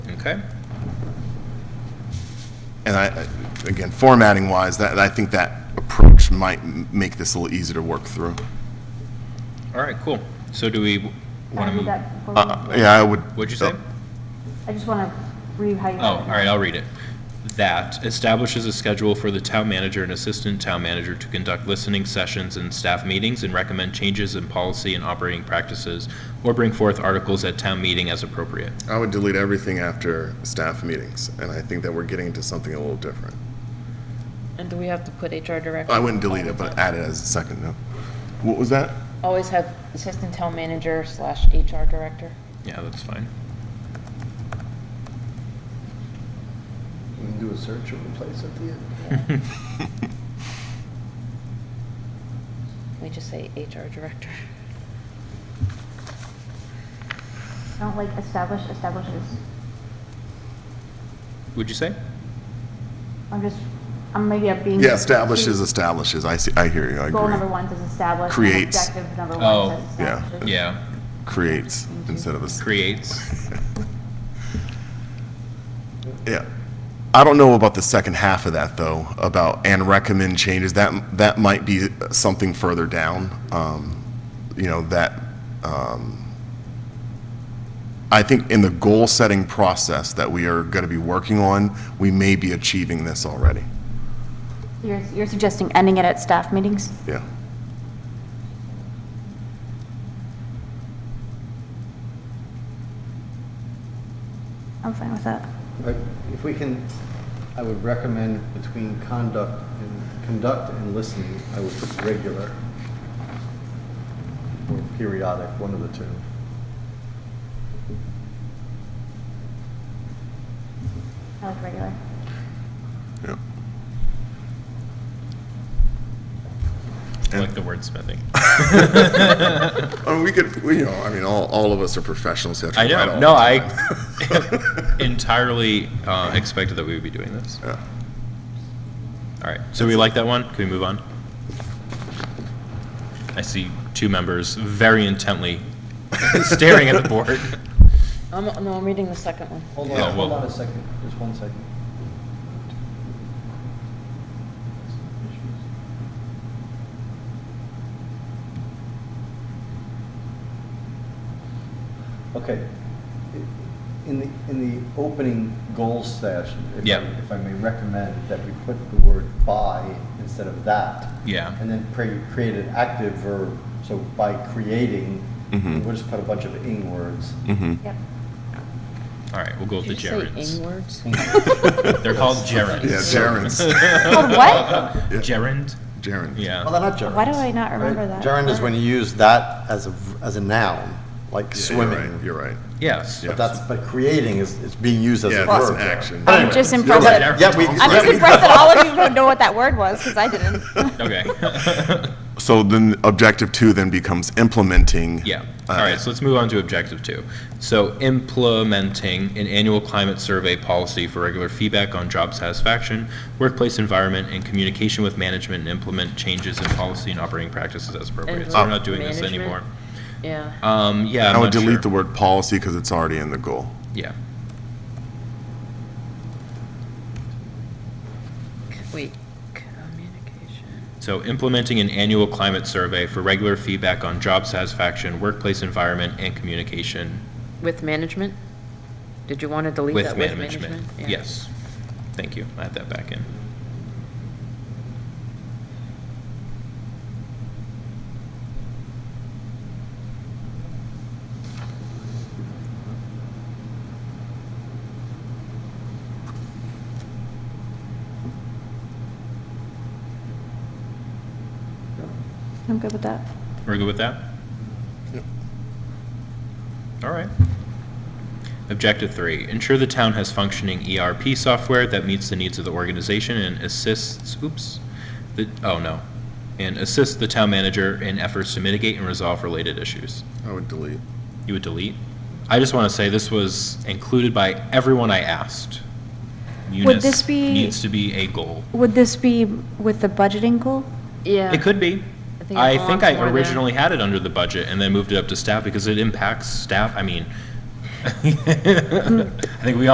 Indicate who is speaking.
Speaker 1: Okay?
Speaker 2: And I, again, formatting wise, that, I think that approach might m- make this a little easier to work through.
Speaker 1: All right, cool. So do we want to
Speaker 3: Can I read
Speaker 1: move?
Speaker 3: that before we-
Speaker 2: Uh, Yeah, I would.
Speaker 1: What'd you say?
Speaker 3: I just want to read how you.
Speaker 1: Oh, all right, I'll read it. That establishes a schedule for the town manager and assistant town manager to conduct listening sessions and staff meetings and recommend changes in policy and operating practices or bring forth articles at town meeting as appropriate.
Speaker 2: I would delete everything after staff meetings, and I think that we're getting into something a little different.
Speaker 4: And do we have to put HR director?
Speaker 2: I wouldn't delete it, but add it as a second note. What was that?
Speaker 4: Always have assistant town manager slash HR director.
Speaker 1: Yeah, that's fine.
Speaker 5: We can do a search and replace at the end.
Speaker 4: We just say HR director.
Speaker 3: I don't like establish, establishes.
Speaker 1: Would you say?
Speaker 3: I'm just, I'm maybe I'm being.
Speaker 2: Yeah, establishes, establishes. I see, I hear you, I
Speaker 3: Goal number
Speaker 2: agree.
Speaker 3: one says establish. and
Speaker 2: Creates.
Speaker 3: Objective number
Speaker 1: Oh,
Speaker 3: one says
Speaker 2: yeah.
Speaker 3: establishes.
Speaker 1: Yeah,
Speaker 2: Creates instead of. a.
Speaker 1: creates.
Speaker 2: Yeah. I don't know about the second half of that, though, about and recommend changes. That, that might be something further down, um, you know, that, um, I think in the goal-setting process that we are going to be working on, we may be achieving this already.
Speaker 3: You're, you're suggesting ending it at staff meetings?
Speaker 2: Yeah.
Speaker 3: I'm fine with that.
Speaker 5: But If we can, I would recommend between conduct and, conduct and listening, I would put regular or periodic, one of the two.
Speaker 3: I like regular.
Speaker 2: Yeah.
Speaker 1: I like the wordsmithing.
Speaker 2: I mean, we could, we, you know, I mean, all, all of us are professionals. so we
Speaker 1: I
Speaker 2: have to write
Speaker 1: know, no,
Speaker 2: all the
Speaker 1: I entirely uh, expected that we would be doing this.
Speaker 2: time. Yeah.
Speaker 1: All right, so we like that one? Can we move on? I see two members very intently staring at the board.
Speaker 4: I'm, no, I'm reading the second one.
Speaker 5: Hold
Speaker 1: Yeah,
Speaker 5: on, hold
Speaker 1: well-
Speaker 5: on a second, just one second. Okay. In the, in the opening goals session, if
Speaker 1: Yeah.
Speaker 5: I- if I may recommend that we put the word by instead of that.
Speaker 1: Yeah.
Speaker 5: And then pre- create an active verb, so by creating,
Speaker 1: Mm-hmm.
Speaker 2: Mhm.
Speaker 5: we'll just put a bunch of ing words.
Speaker 2: Mhm.
Speaker 3: Yep.
Speaker 1: All right, we'll go with the
Speaker 4: Did you say
Speaker 1: gerunds.
Speaker 4: ing words?
Speaker 1: They're called gerunds.
Speaker 2: Yeah, gerunds.
Speaker 3: Called Oh, what?
Speaker 1: Gerund,
Speaker 2: Gerund.
Speaker 5: Well,
Speaker 1: yeah.
Speaker 5: they're not gerunds.
Speaker 3: Why do I not
Speaker 5: right?
Speaker 3: remember that?
Speaker 5: Gerund is when you use that as a, v- as a noun, like
Speaker 2: Yeah, You're
Speaker 5: swimming.
Speaker 2: right, you're right.
Speaker 1: Yes.
Speaker 2: Yeah.
Speaker 5: But that's, but creating is, is being used as
Speaker 2: Yeah,
Speaker 5: a
Speaker 2: that's
Speaker 5: verb.
Speaker 2: an action.
Speaker 3: I'm just impressed.
Speaker 1: right.
Speaker 3: that-
Speaker 5: Yeah, yeah, we.
Speaker 3: I'm just impressed that all of you don't know what that word was, because I didn't.
Speaker 1: Okay.
Speaker 2: So then objective two then becomes implementing.
Speaker 1: Yeah.
Speaker 2: uh,
Speaker 1: All right, so let's move on to objective two. So implementing an annual climate survey policy for regular feedback on job satisfaction, workplace environment, and communication with management, and implement changes in policy and operating practices as appropriate. So we're not doing this
Speaker 4: Management?
Speaker 1: anymore.
Speaker 4: Yeah.
Speaker 1: Um, yeah. I'm
Speaker 2: I would
Speaker 1: not sure.
Speaker 2: delete the word policy because it's already in the goal.
Speaker 1: Yeah.
Speaker 4: Wait, communication.
Speaker 1: So implementing an annual climate survey for regular feedback on job satisfaction, workplace environment, and communication
Speaker 4: With management? Did you want to delete
Speaker 1: with
Speaker 4: that with
Speaker 1: management.
Speaker 4: management? Yeah.
Speaker 1: Yes. Thank you. I had that back in.
Speaker 3: I'm good with that.
Speaker 1: We're good with that?
Speaker 2: Yep.
Speaker 1: All right. Objective three, ensure the town has functioning ERP software that meets the needs of the organization and assists, oops, the, oh no, and assists the town manager in efforts to mitigate and resolve related issues.
Speaker 2: I would delete.
Speaker 1: You would delete? I just want to say this was included by everyone I asked.
Speaker 3: Would this
Speaker 1: Munis
Speaker 3: be-
Speaker 1: Needs to be a goal.
Speaker 3: Would this be with the budgeting goal?
Speaker 4: Yeah.
Speaker 1: It could be.
Speaker 4: I think it
Speaker 1: I think
Speaker 4: belongs
Speaker 1: I
Speaker 4: more there.
Speaker 1: originally had it under the budget and then moved it up to staff because it impacts staff, I mean, I think we all.